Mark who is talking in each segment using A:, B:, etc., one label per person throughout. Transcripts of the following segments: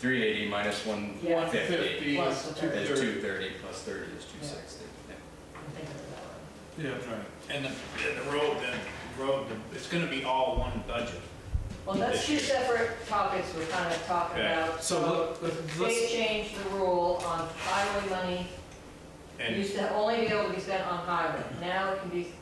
A: three eighty minus one,
B: Yeah.
A: one fifty
C: Fifty
B: Plus
C: is
B: the
C: two
B: thirty.
A: is
C: thirty.
A: two thirty, plus thirty is two sixty.
B: I'm thinking of that one.
C: Yeah,
D: And the, and the road, the road, it's gonna be all one budget.
B: Well, that's two
D: Issue.
B: separate topics we're kind of talking
D: Okay.
B: about.
C: so let- let-
B: They
C: let's,
B: changed the rule on highway money, it
D: And,
B: used to only be able to be spent on highway, now it can be,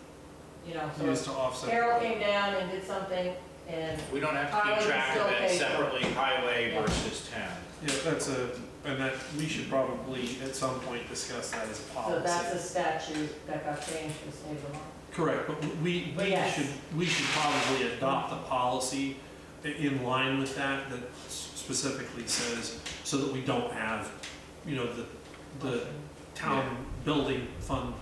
B: you know, so
C: used
B: if
C: to offset.
B: Carol came down and did something, and
D: we don't have to keep
B: Highway
D: track
B: still
D: of that
B: pays.
D: separately, highway
B: Yeah.
D: versus town.
C: Yeah, that's a, and that, we should probably at some point discuss that as a
B: so that's a
C: policy.
B: statute that got changed for state law.
C: Correct, but we,
B: But
C: we
B: yes.
C: should, we should probably adopt a policy i- in line with that, that s- specifically says, so that we don't have, you know, the, the town building fund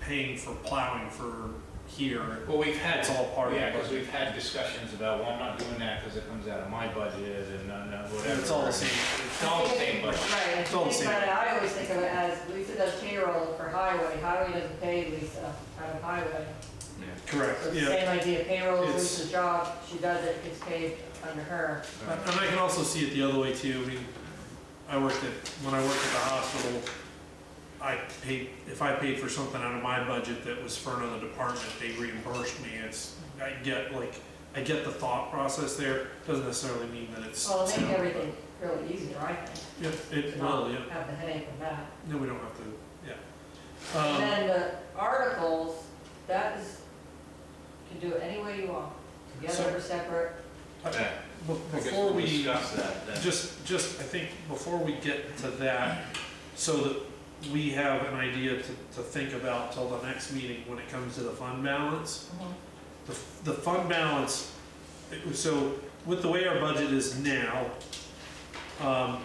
C: paying for plowing for here,
D: Well, we've had,
C: it's all part of
D: yeah,
C: the
D: because
C: budget.
D: we've had discussions about, well, I'm not doing that because it comes out of my budget and uh, no, whatever.
C: It's all the same.
D: It's all the same budget.
B: Right, and
C: It's all the
B: think
C: same.
B: about it, I always think of it as, Lisa does payroll for highway, highway doesn't pay Lisa out of highway.
C: Correct,
B: So it's the same
C: yeah.
B: idea, payroll is
C: It's-
B: Lisa's job, she does it, it's paid under her.
C: And
D: Uh,
C: and I can also see it the other way too, I mean, I worked at, when I worked at the hospital, I paid, if I paid for something out of my budget that was for another department, they reimbursed me, it's, I get like, I get the thought process there, doesn't necessarily mean that it's.
B: Well, it'll make everything really easier, I think.
C: Yeah, it
B: to
C: will,
B: not
C: yeah,
B: Have the headache of that.
C: no, we don't have to,
B: And
C: yeah. Um,
B: then the articles, that is, you can do it any way you want, together or separate.
D: Yeah,
C: be-
D: I guess
C: before
D: we'll
C: we.
D: Discuss that then.
C: Just, just, I think, before we get to that, so that we have an idea to, to think about till the next meeting when it comes to the fund balance. The, the fund balance, it- so with the way our budget is now, um,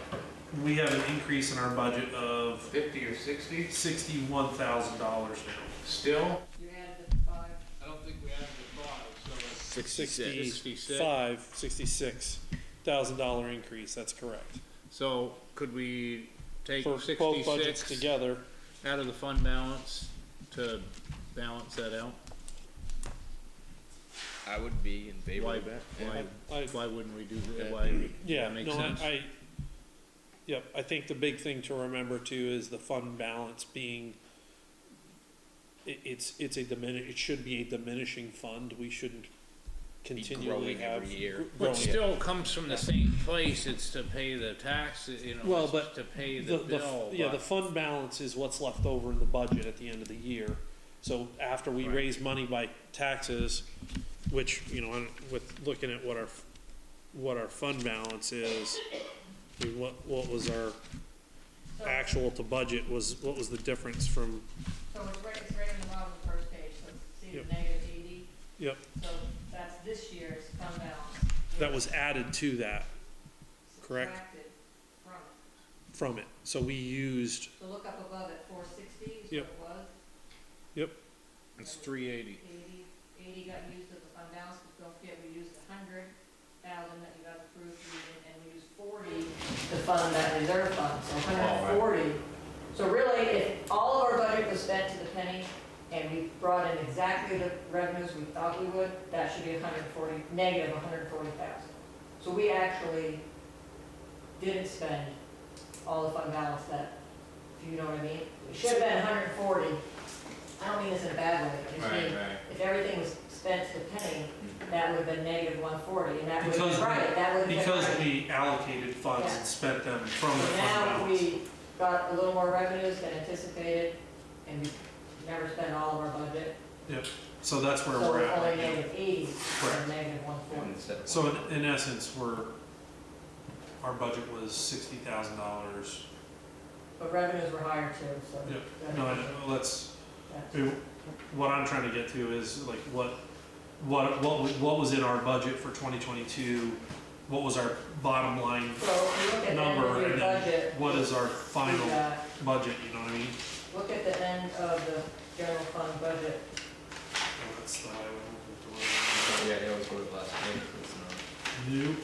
C: we have an increase in our budget of
D: Fifty or sixty,
C: sixty-one thousand dollars now.
D: still?
B: You added the five.
D: I don't think we have the five, so.
C: Sixty-five, sixty-six thousand dollar increase, that's correct.
D: So could we take
C: together.
D: out of the fund balance to balance that out?
E: I would be in favor of that.
D: Why,
C: I,
D: why wouldn't we do that?
E: Yeah.
D: Why?
C: Yeah,
D: That makes
C: no, I,
D: sense.
C: I, yep, I think the big thing to remember too is the fund balance being, it, it's, it's a diminish, it should be a diminishing fund, we shouldn't continually
E: growing
C: have.
E: every year.
C: gr-
D: But
C: growing.
D: still comes from the same place, it's to pay the tax, you know,
C: Well,
D: it's
C: but
D: to pay
C: The,
D: the
C: the,
D: bill.
C: yeah, the
D: but-
C: fund balance is what's left over in the budget at the end of the year. So after we
D: Right.
C: raise money by taxes, which, you know, on- with looking at what our, what our fund balance is, I mean, what, what was our
B: So-
C: actual to budget was, what was the difference from,
B: So it's right, it's right in the bottom of the first page, so see
C: Yep.
B: the negative eighty?
C: Yep.
B: So that's this year's fund balance.
C: that was added to that, correct.
B: Subtracted from it.
C: from it. So we used,
B: So look up above at four sixty, is
C: Yep.
B: what it was.
D: It's three eighty.
B: Eighty, eighty got used as a fund balance, but don't forget, we used a hundred thousand that you got approved, using, and we used forty to fund that reserve fund, so hundred and forty. So really, if all of our budget was spent to the penny, and we brought in exactly the revenues we thought we would, that should be a hundred and forty, negative a hundred and forty thousand. So we actually didn't spend all the fund balance that, if you know what I mean? It should have been hundred and forty, I don't mean this in a bad way, I just
D: Right,
B: mean,
D: right.
B: if everything was spent to the penny, that would have been negative one forty, and that would have
C: Because
B: been
C: we-
B: right, that would have been
C: because
B: right.
C: we allocated funds and spent them from
B: So
C: the fund
B: now
C: balance.
B: we got a little more revenues than anticipated, and we never spent all of our budget.
C: So that's where
B: So
C: we're
B: it's only
C: at. right now.
B: negative eighty,
C: Correct.
B: or negative one forty.
E: And so-
C: So in, in essence, we're, our budget was sixty thousand dollars.
B: But revenues were higher too, so.
C: Yep.
B: that-
C: No, I know, let's,
B: that-
C: I mean, what I'm trying to get to is like what, what, what, was- what was in our budget for twenty twenty-two? What was our bottom line
B: So if you look at the end of
C: number
B: your
C: and then
B: budget.
C: what is our
B: we
C: final
B: got-
C: budget, you know what I mean?
B: Look at the end of the general fund budget.
C: Oh, that's the highway, we'll have
E: Yeah, it was one of the last things, it's not-
C: to worry about. New.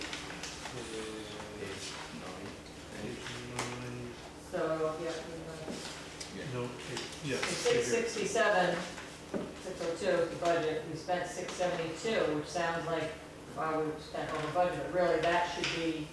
E: it's nine,
B: So, yep, we know.
C: No, eight,
B: The
C: yes. right
B: six
C: here.
B: sixty-seven, six oh two is the budget, we spent six seventy-two, which sounds like, wow, we spent over budget, but really, that should be